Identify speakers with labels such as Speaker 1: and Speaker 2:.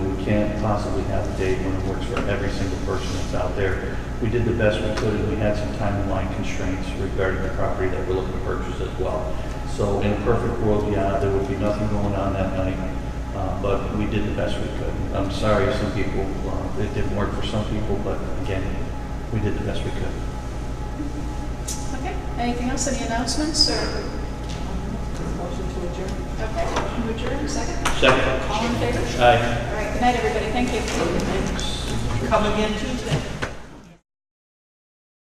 Speaker 1: can't possibly have a date when it works for every single person that's out there. We did the best we could, and we had some timeline constraints regarding the property that we're looking to purchase as well. So in a perfect world, yeah, there would be nothing going on that night, uh, but we did the best we could. I'm sorry, some people, uh, it didn't work for some people, but again, we did the best we could.
Speaker 2: Okay, anything else, any announcements, or? Motion to adjourn. Okay, motion to adjourn, second.
Speaker 1: Second.
Speaker 2: All in favor?
Speaker 1: Aye.
Speaker 2: All right, good night, everybody, thank you.
Speaker 3: Come again Tuesday?